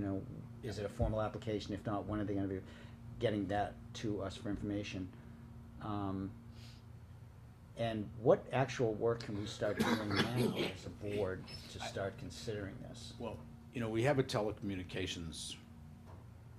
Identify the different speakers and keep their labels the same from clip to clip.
Speaker 1: know, is it a formal application? If not, when are they gonna be getting that to us for information? Um, and what actual work can we start doing now as a board to start considering this?
Speaker 2: Well, you know, we have a telecommunications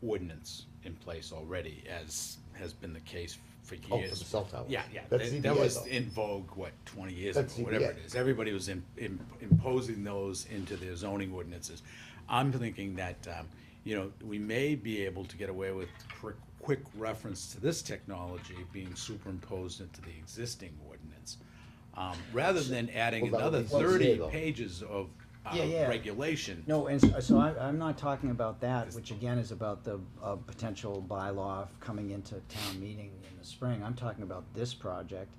Speaker 2: ordinance in place already, as has been the case for
Speaker 3: Oh,
Speaker 2: years.
Speaker 3: for the cell towers.
Speaker 2: Yeah, yeah,
Speaker 3: That's
Speaker 2: that, that
Speaker 3: ZBA
Speaker 2: was
Speaker 3: though.
Speaker 2: in vogue, what, twenty years ago,
Speaker 3: That's
Speaker 2: whatever it
Speaker 3: ZBA.
Speaker 2: is, everybody was im- im- imposing those into their zoning ordinances. I'm thinking that, um, you know, we may be able to get away with quick, quick reference to this technology being superimposed into the existing ordinance. Um, rather than adding
Speaker 3: Well, that
Speaker 2: another
Speaker 3: would be ZBA
Speaker 2: thirty
Speaker 3: though.
Speaker 2: pages of, uh,
Speaker 1: Yeah, yeah.
Speaker 2: regulation.
Speaker 1: No, and so- so I, I'm not talking about that, which again is about the, uh, potential bylaw of coming into town meeting in the spring. I'm talking about this project.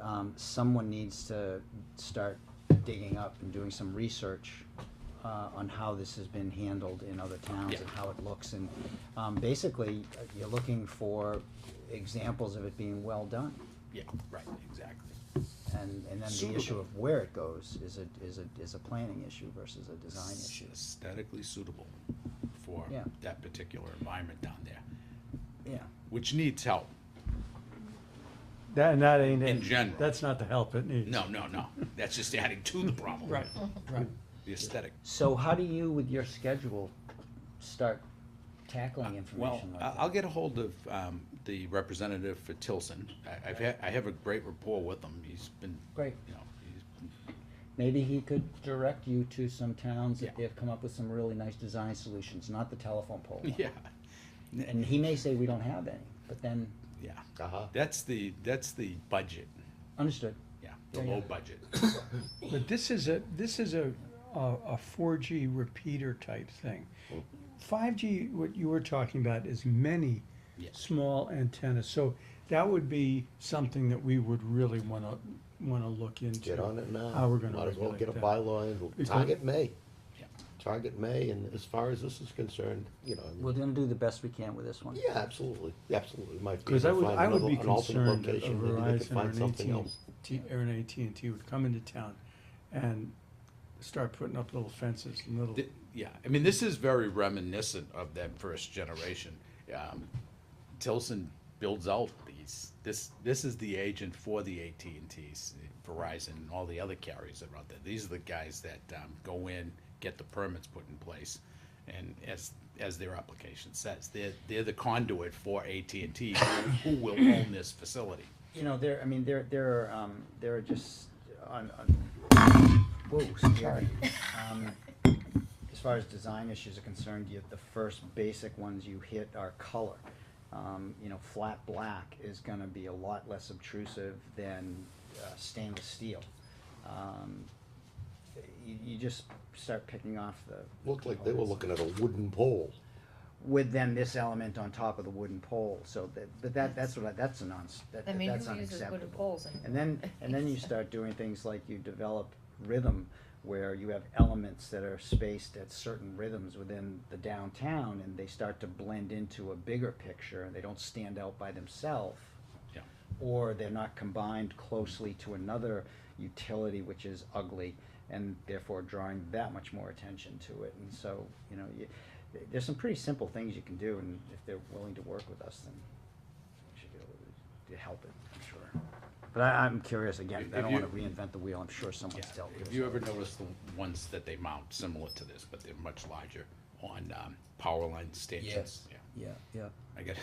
Speaker 1: Um, someone needs to start digging up and doing some research, uh, on how this has been handled in other towns and how it looks. And, um, basically, uh, you're looking for examples of it being well done.
Speaker 2: Yeah, right, exactly.
Speaker 1: And, and then the issue
Speaker 2: Suitable.
Speaker 1: of where it goes is a, is a, is a planning issue versus a design issue.
Speaker 2: Aesthetically suitable for
Speaker 1: Yeah.
Speaker 2: that particular environment down there,
Speaker 1: Yeah.
Speaker 2: which needs help.
Speaker 4: That, and that ain't it.
Speaker 2: In general.
Speaker 4: That's not the help it needs.
Speaker 2: No, no, no, that's just adding to the problem.
Speaker 4: Right, right.
Speaker 2: The aesthetic.
Speaker 1: So how do you, with your schedule, start tackling
Speaker 2: Well,
Speaker 1: information like
Speaker 2: I-
Speaker 1: that?
Speaker 2: I'll get a hold of um, the representative for Tilson. I- I've had, I have a great rapport with him. He's been,
Speaker 1: Great.
Speaker 2: you know, he's,
Speaker 1: Maybe he could direct you to some towns
Speaker 2: Yeah.
Speaker 1: that they've come up with some really nice design solutions, not the telephone pole one.
Speaker 2: yeah,
Speaker 1: And he may say, we don't have any, but then,
Speaker 2: yeah.
Speaker 3: Uh-huh.
Speaker 2: That's the, that's the budget,
Speaker 1: understood.
Speaker 2: yeah, the
Speaker 4: Yeah, yeah.
Speaker 2: low budget.
Speaker 5: But this is a, this is a, a, a four G repeater type thing. Five G, what you were talking about is many
Speaker 2: Yeah.
Speaker 5: small antennas, so that would be something that we would really wanna, wanna look into.
Speaker 3: Get on it now.
Speaker 5: How we're gonna
Speaker 3: Might as well get a
Speaker 5: regulate that.
Speaker 3: bylaw in,
Speaker 5: Because-
Speaker 3: target May.
Speaker 2: Yeah.
Speaker 3: Target May, and as far as this is concerned, you know, I mean,
Speaker 1: We're gonna do the best we can with this one.
Speaker 3: yeah, absolutely, absolutely, might be.
Speaker 5: Because I
Speaker 3: able to
Speaker 5: would,
Speaker 3: find
Speaker 5: I would
Speaker 3: another-
Speaker 5: be
Speaker 3: an alternate
Speaker 5: concerned that a
Speaker 3: location, maybe they could
Speaker 5: Verizon
Speaker 3: find
Speaker 5: or an
Speaker 3: something
Speaker 5: AT&T,
Speaker 3: else.
Speaker 5: T- or an AT&T would come into town and start putting up little fences and little.
Speaker 2: Th- Yeah, I mean, this is very reminiscent of that first generation. Um, Tilson builds out these, this, this is the agent for the AT&Ts, Verizon, and all the other carriers that are out there. These are the guys that, um, go in, get the permits put in place, and as, as their application says, they're, they're the conduit for AT&T, who will own this facility.
Speaker 1: You know, there, I mean, there, there are, um, there are just, on, on, whoa, scary. Um, as far as design issues are concerned, you, the first basic ones you hit are color. Um, you know, flat black is gonna be a lot less obtrusive than uh, stainless steel. Um, you, you just start picking off the.
Speaker 3: Looked like they were
Speaker 1: components
Speaker 3: looking at a wooden pole.
Speaker 1: with then this element on top of the wooden pole, so that, but that, that's what I, that's a non, that,
Speaker 6: I
Speaker 1: that's
Speaker 6: mean,
Speaker 1: unacceptable.
Speaker 6: who uses wooden poles anymore?
Speaker 1: And then, and then you start doing things like you develop rhythm, where you have elements that are spaced at certain rhythms within the downtown, and they start to blend into a bigger picture, and they don't stand out by themselves.
Speaker 2: Yeah.
Speaker 1: Or they're not combined closely to another utility which is ugly, and therefore drawing that much more attention to it, and so, you know, you, there's some pretty simple things you can do, and if they're willing to work with us, then we should be able to- to help it, I'm sure. But I, I'm curious again, I
Speaker 2: If
Speaker 1: don't
Speaker 2: you-
Speaker 1: wanna reinvent the wheel, I'm sure
Speaker 2: Yeah,
Speaker 1: someone's dealt with
Speaker 2: Have you
Speaker 1: it.
Speaker 2: ever noticed the ones that they mount similar to this, but they're much larger on, um, power line stations?
Speaker 1: Yes.
Speaker 2: Yeah.
Speaker 1: Yeah, yeah,
Speaker 2: I got,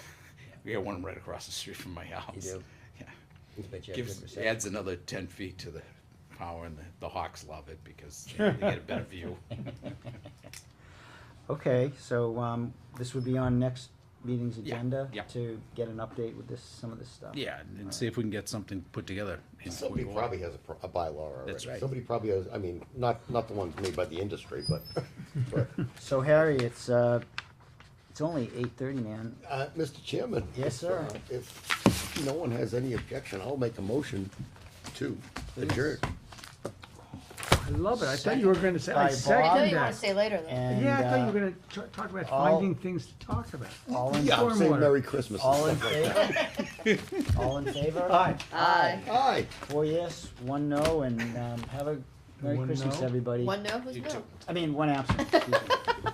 Speaker 2: we got one right across the street from my house.
Speaker 1: do?
Speaker 2: Yeah,
Speaker 1: I bet you have good
Speaker 2: gives,
Speaker 1: reception.
Speaker 2: adds another ten feet to the power, and the, the Hawks love it because they they get a better view.
Speaker 1: Okay, so, um, this would be on next meeting's
Speaker 2: Yeah,
Speaker 1: agenda?
Speaker 2: yeah.
Speaker 1: To get an update with this, some of this stuff?
Speaker 2: Yeah, and see if we can get something put together. in
Speaker 3: Somebody
Speaker 2: quick order.
Speaker 3: probably has a, pro- a bylaw already.
Speaker 2: That's right.
Speaker 3: Somebody probably has, I mean, not, not the ones made by the industry, but, but,
Speaker 1: So Harry, it's, uh, it's only eight thirty, man,
Speaker 3: uh, Mr. Chairman.
Speaker 1: Yes, sir.
Speaker 3: uh, If no one has any objection, I'll make a motion to adjourn.
Speaker 4: I love it. I thought you were gonna say, I
Speaker 1: By
Speaker 6: I know
Speaker 4: second
Speaker 6: you wanna
Speaker 4: that.
Speaker 6: stay later though.
Speaker 1: and,
Speaker 4: Yeah, I thought
Speaker 1: uh,
Speaker 4: you were gonna t- talk about
Speaker 1: all-
Speaker 4: finding things to talk about.
Speaker 1: all in,
Speaker 3: Yeah, say
Speaker 4: Stormwater.
Speaker 3: Merry Christmas and
Speaker 1: all in
Speaker 3: stuff like that.
Speaker 1: favor? All in favor?
Speaker 4: Aye.
Speaker 6: Aye.
Speaker 3: Aye.
Speaker 1: Four yes, one no, and, um, have a Merry
Speaker 4: One
Speaker 1: Christmas,
Speaker 4: no?
Speaker 1: everybody.
Speaker 6: One no, who's no?
Speaker 1: I mean, one absent. excuse me.